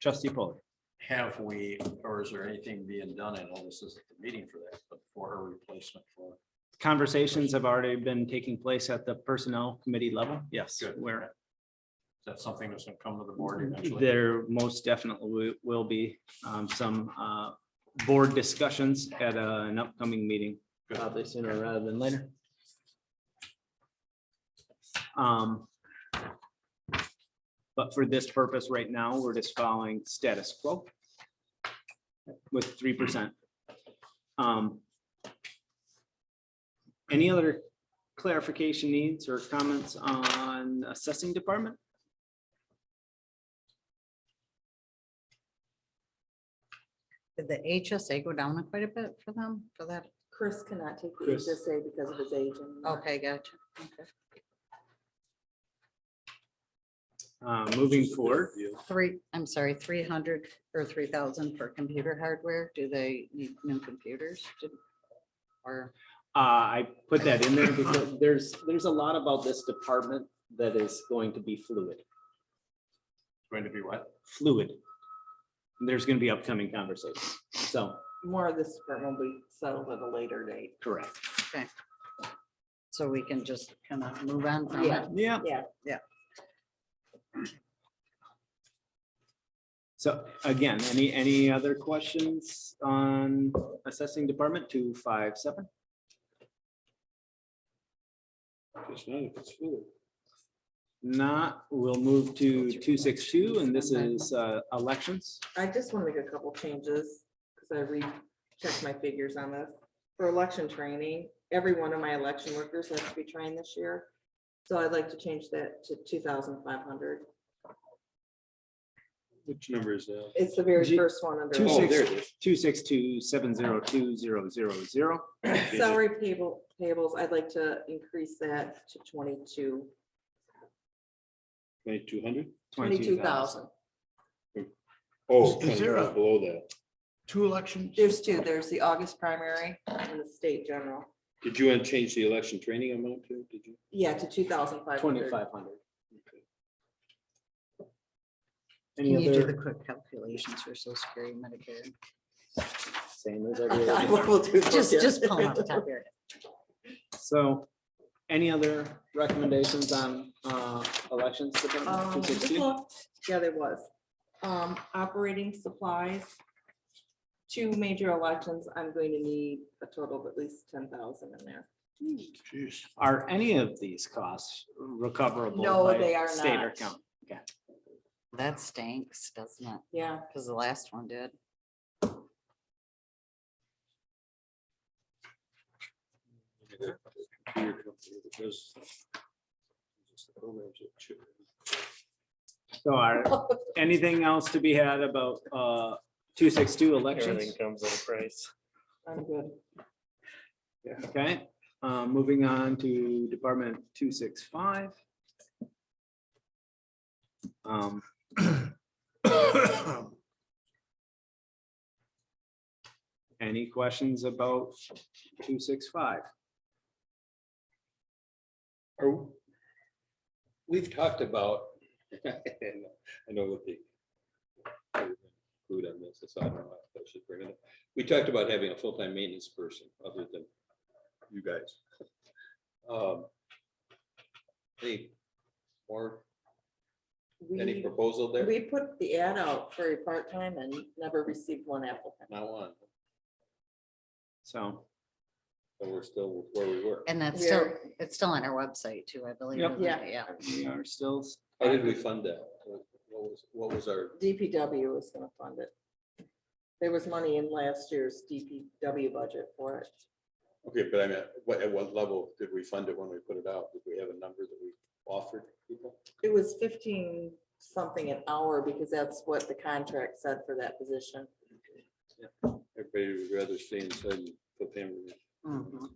Trustee Polley. Have we, or is there anything being done? I know this isn't the meeting for that, but for a replacement for, Conversations have already been taking place at the personnel committee level. Yes, Good. where is that something that's gonna come to the board eventually? there most definitely wi- will be um, some uh, board discussions at uh, an upcoming meeting. Good. Probably sooner rather than later. Um, But for this purpose, right now, we're just following status quo with three percent. Um, Any other clarification needs or comments on assessing department? Did the HSA go down quite a bit for them, for that? Chris cannot take the Chris. HSA because of his age and. Okay, gotcha. Okay. Uh, moving forward, Three, I'm sorry, three hundred or three thousand for computer hardware. Do they need new computers? Did- Or, uh, I put that in there because there's, there's a lot about this department that is going to be fluid, Going to be what? fluid. There's gonna be upcoming conversations, so, More of this department will be settled at a later date. correct. so we can just kind of move on from it? Yeah. Yeah. Yeah. So again, any, any other questions on assessing department two, five, seven? Not, we'll move to two, six, two, and this is uh, elections. I just want to make a couple changes because I rechecked my figures on this. For election training, every one of my election workers has to be trained this year. So I'd like to change that to two thousand five hundred. Which number is that? It's the very G- first one under. Two Oh, six- there it is. Two, six, two, seven, zero, two, zero, zero, zero. Salary payable, payables, I'd like to increase that to twenty-two, Twenty-two hundred? twenty-two thousand. Oh, Is there a- below that. two elections? There's two, there's the August primary and the state general. Did you want to change the election training amount too? Did you? Yeah, to two thousand five hundred. Twenty-five hundred. Any Can you do the other, quick calculations for social security, Medicare? same as every I other. will do that, Just, Oh, yeah. just pull out the top of your head. So, any other recommendations on uh, elections? Department Um, just 260? looked, yeah, there was. Um, operating supplies. Two major elections, I'm going to need a total of at least ten thousand in there. Jeez. Are any of these costs recoverable? No, by they are State or not. county? That stinks, doesn't it? Yeah, Because the last one did. Computer company that does- just the programs that chip in. So are, anything else to be had about uh, two six two Everything elections? comes at a price. I'm good. Okay, uh, moving on to Department two six five. Um, Any questions about two six five? Are- We've talked about, and I know what the. Food on this, it's on, I should bring it up. We talked about having a full-time maintenance person other than you guys. Um, Any more, any We, proposal there? we put the ad out for a part-time and never received one applicant. Not one, So, but we're still where we were. And that's We are- still, it's still on our website too, I believe. Yep. isn't Yeah. it? Yeah. we are still, How did we fund that? What was, what was our, DPW was gonna fund it. There was money in last year's DPW budget for it. okay, but I mean, what, at what level did we fund it when we put it out? Did we have a number that we offered people? It was fifteen something an hour because that's what the contract said for that position. Everybody would rather stay inside and put them in. Mhm.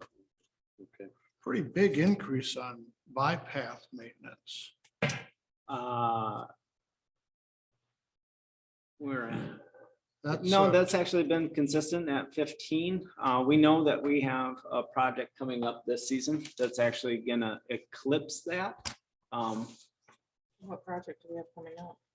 Okay. Pretty big increase on bypass maintenance. uh. We're at. That's, No, uh, that's actually been consistent at fifteen. Uh, we know that we have a project coming up this season that's actually gonna eclipse that. Um, What project do we have coming up?